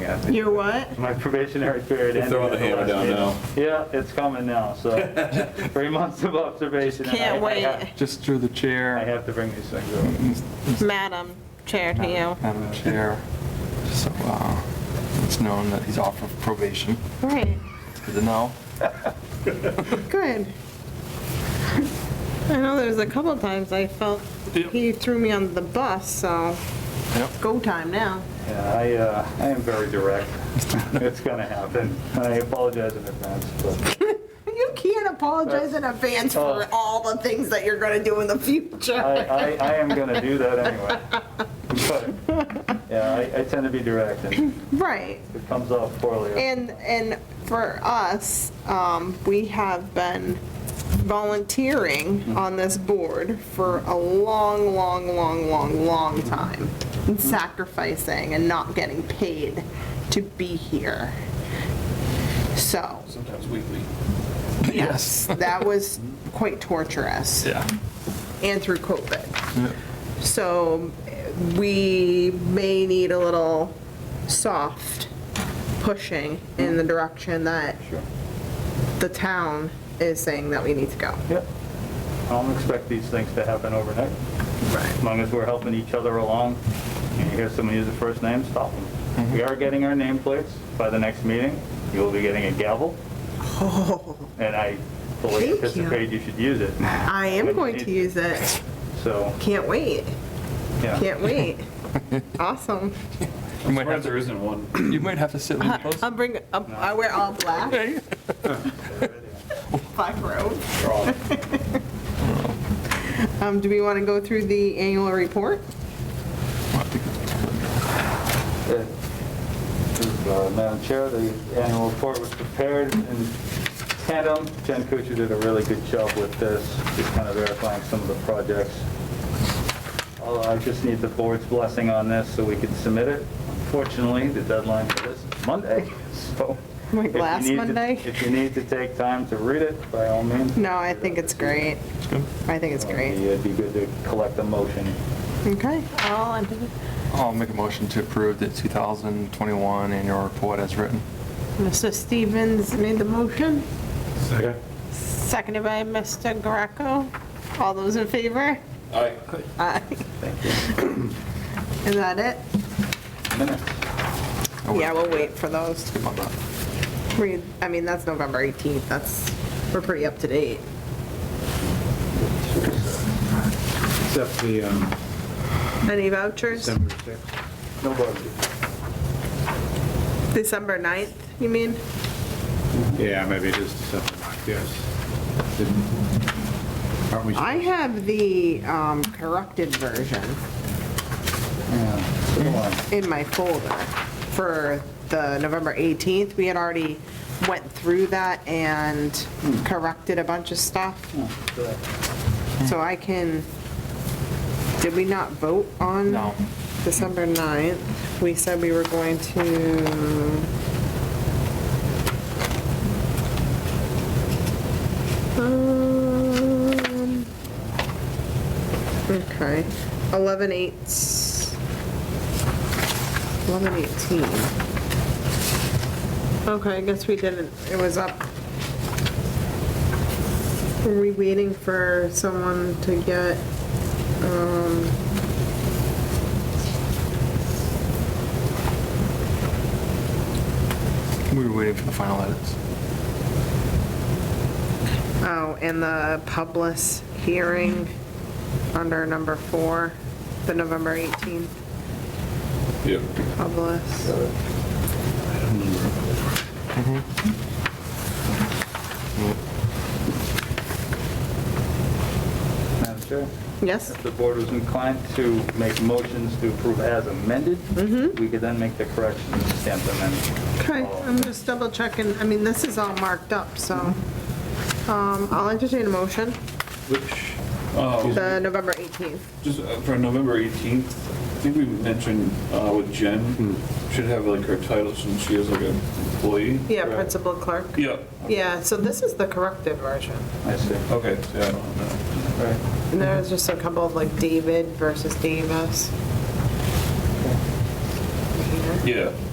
yeah. You're what? My probationary period ended. Throwing the at hammer last down meeting. now. Yeah, it's coming now, so three months of observation. and I- Can't I wait. have- Just through the I chair, have to bring these things up. Madam Chair to you. Madam Chair, so uh, it's known that he's off of probation. Right, It's Good to know. good. I know there's a couple times I felt he threw me on the bus, so Yep. go time now. Yeah, I, uh, I am very direct. It's gonna happen. I apologize in advance, but You can't apologize in advance for Oh. all the things that you're gonna do in the I, future. I, I am gonna do that anyway. But, yeah, I, I tend to be direct and Right. if it comes off poorly. I- And, and for us, um, we have been volunteering on this board for a long, long, long, long, long time. And sacrificing and not getting paid to be here. So, Sometimes weekly. yes, that was quite torturous Yeah. and through COVID. So eh, we may need a little soft pushing in the direction that Sure. the town is saying that we need to go. Yep. I don't expect these things to happen overnight. As Right. long as we're helping each other along, and you hear someone use the first name, stop Mm-hmm. them. We are getting our nameplates by the next meeting. You will be getting a gavel, Oh, and I fully Thank you. anticipate you should use it. I am going to use it. So, Can't wait, yeah. can't wait. Awesome. You might have there isn't one. to, you might have to sit a little closer. I'll bring, I wear all black, Hey. black robe. We're all- Um, do we want to go through the annual report? Uh, Madam Chair, the annual report was prepared in tandem. Jen Kuchar did a really good job with this, just kind of verifying some of the projects. Uh, I just need the board's blessing on this so we can submit it. Unfortunately, the deadline for this is Monday, so. Like if you last need to- Monday? If you need to take time to read it, by all means. Uh, No, I think it's great. I think it's great. It'd be good to collect a motion. Okay. All in I'll make a motion to approve the 2021 annual report as written. Mr. Stevens made the motion. Second. Seconded by Mr. Greco. All those in favor? All right. Aye. Thank you. Is that it? Minutes. I would- Yeah, we'll wait for those. Skip on that. We- I mean, that's November 18th. That's, we're pretty up to date. Except the um, Any vouchers? December 6th. No vote. December 9th, you mean? Yeah, maybe it is December 9th, yes. Didn't- Aren't we, I have the um, corrected version Yeah, so do I. in my folder for the November 18th. We had already went through that and corrected a bunch of stuff. Good. So I can, did we not vote on? No. December 9th? We said we were going to. Um. Okay, 11, 8, 11, 18. Okay, I guess we didn't, it was up are we waiting for someone to get, um... We were waiting for the final edits. Oh, and the public hearing under number four, the November 18th Yep. public. Madam Chair, Yes? if the board was inclined to make motions to approve as amended, we could then make the corrections and stamp them in. Oh, Okay, um, I'm just double checking, I mean, this is all marked up, so, um, I'll entertain a motion, Which, uh, the November 18th. just uh, for November 18th, I think we mentioned uh, with Jen, should have like her title since she is like an employee. Yeah, correct? Principal Clerk. Yeah. Yeah, so this is the corrected version. I see. Okay, so yeah, I don't know. Right. And there's just a couple of like David versus Davis. Here. Yeah.